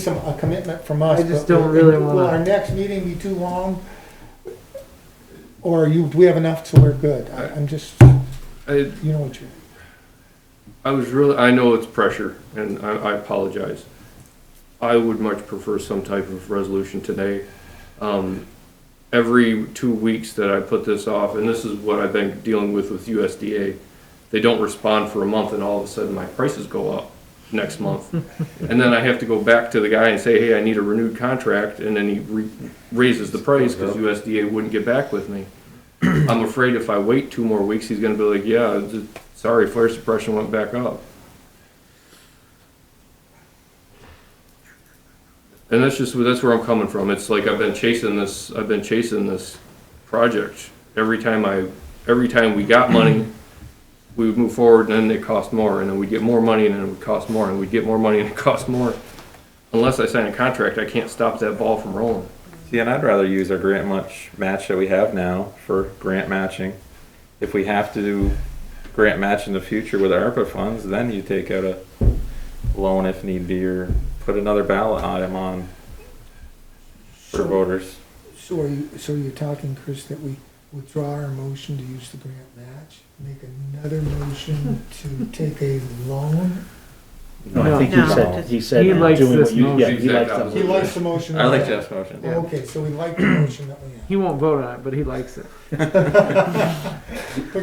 some, a commitment from us. I just but don't really wanna- Will our next meeting be too long? Or you, do we have enough so we're good? I, I'm just, I, you know what you're, I was really, I know it's pressure, and I, I apologize. I would much prefer some type of resolution today. Um, every two weeks that I put this off, and this is what I've been dealing with with USDA, they don't respond for a month, and all of a sudden my prices go up next month. And then I have to go back to the guy and say, hey, I need a renewed contract, and then he re- raises the price because USDA wouldn't get back with me. I'm afraid if I wait two more weeks, he's gonna be like, yeah, th- sorry, fire suppression went back up. And that's just, that's where I'm coming from. It's like I've been chasing this, I've been chasing this project. Every time I, every time we got money, we would move forward and then it cost more and then we'd get more money and then it would cost more and we'd get more money and it cost more. Unless I sign a contract, I can't stop that ball from rolling. See, and I'd rather use our grant match, match that we have now for grant matching. If we have to do grant match in the future with our ARPA funds, then you take out a loan if need be, or put another ballot item on for so, voters. so are you, so you're talking, Chris, that we withdraw our motion to use the grant match? Make another motion to take a loan? No, I think No. he said, he said. He doing likes what this you- move. Yeah, he Exact likes opposite. that. He likes the motion. I like Jeff's motion. Okay, so we like the motion that we have. He won't vote on it, but he likes it. Okay,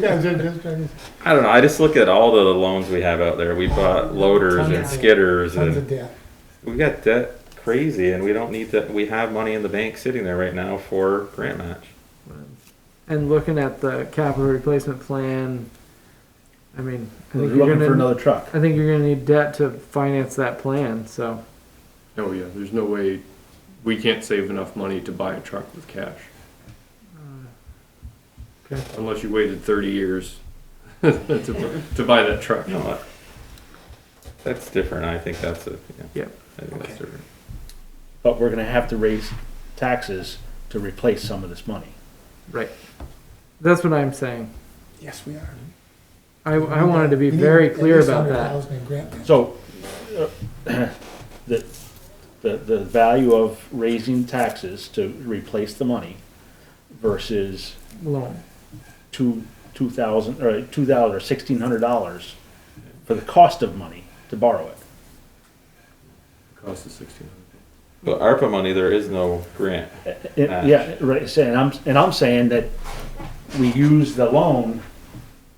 I'm just- just trying to- I don't know, I just look at all the loans we have out there. We bought loaders and skidders Tons of and debt. we got debt crazy and we don't need that, we have money in the bank sitting there right now for grant match. And looking at the capital replacement plan, I mean, I They're think you're Looking for gonna, another truck. I think you're gonna need debt to finance that plan, so. Oh yeah, there's no way, we can't save enough money to buy a truck with cash. okay. Unless you waited thirty years to, to buy that truck. No, that- that's different. I think that's a, yeah. Yep. I think that's different. But we're gonna have to raise taxes to replace some of this money. That's what I'm saying. Yes, we are. I, I wanted to be We need very at clear least about that. 100,000 in grant match. So, uh, the, the, the value of raising taxes to replace the money versus Loan. two, two thousand, or two thousand, or sixteen hundred dollars for the cost of money to borrow it. Cost is sixteen hundred. But ARPA money, there is no grant. It- Yeah, right, saying, I'm, and I'm saying that we use the loan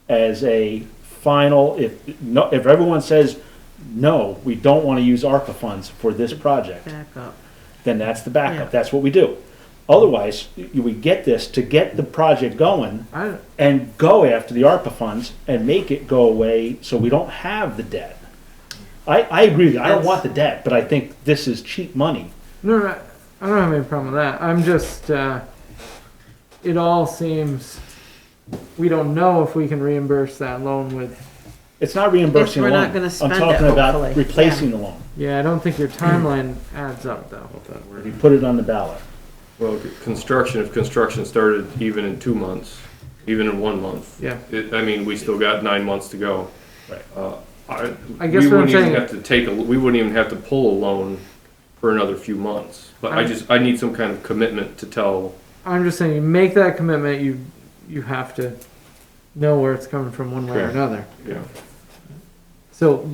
as a final, if, no, if everyone says, no, we don't wanna use ARPA funds for this project, back up. then that's the Yeah. backup, that's what we do. Otherwise, y- we get this to get the project going I, and go after the ARPA funds and make it go away so we don't have the debt. I, I agree with you, I don't want the debt, but I think this is cheap money. No, no, I don't have any problem with that. I'm just, uh, it all seems, we don't know if we can reimburse that loan with, It's not reimbursing If the we're loan. not gonna spend it, I'm talking about hopefully. replacing the loan. yeah, I don't think your timeline adds up though. You put it on the ballot. Well, c- construction, if construction started even in two months, even in one month. Yeah. It, I mean, we still got nine months to go. Right. Uh, I I, we guess what I'm wouldn't even saying- have to take, a we wouldn't even have to pull a loan for another few months. But I I'm- just, I need some kind of commitment to tell, I'm just saying, you make that commitment, you, you have to know where it's coming from one way or Correct. another. you know, So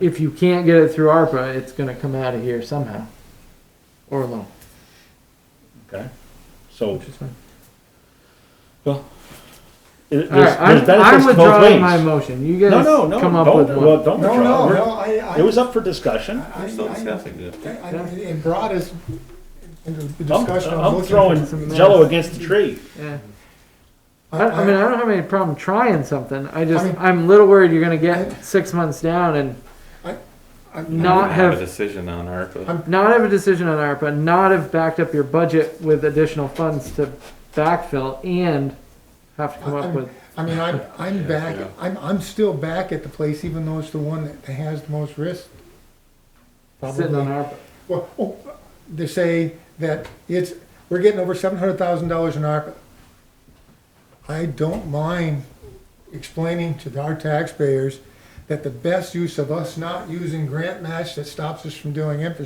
if you can't get it through ARPA, it's gonna come out of here somehow. Or loan, Okay. So which is fine. it- there's, All right, I'm, there's benefits I'm to both withdrawing my ways. motion. You No, guys no, no. come up don't, with well, one. don't No, no, withdraw. We're- no, I, I. It was up for discussion. I- We're still I- discussing it. I- I- It brought us into the I'm, discussion. I'm looking- throwing some minutes. jello against the tree. Yeah. I- I, I mean, I- I don't have any problem trying something. I just, I mean- I'm a little worried you're gonna I- get six months down and I'm- We not don't have- A decision on ARPA. I'm- not have a decision on ARPA, not have backed up your budget with additional funds to backfill and have to come I- up I'm- with, I mean, I'm, I'm back, yeah. I'm, I'm still back at the place, even though it's the one that has the most risk. sitting on Probably, ARPA. well, oh, they say that it's, we're getting over seven hundred thousand dollars in ARPA. I don't mind explaining to our taxpayers that the best use of us not using grant match that stops us from doing infrastructure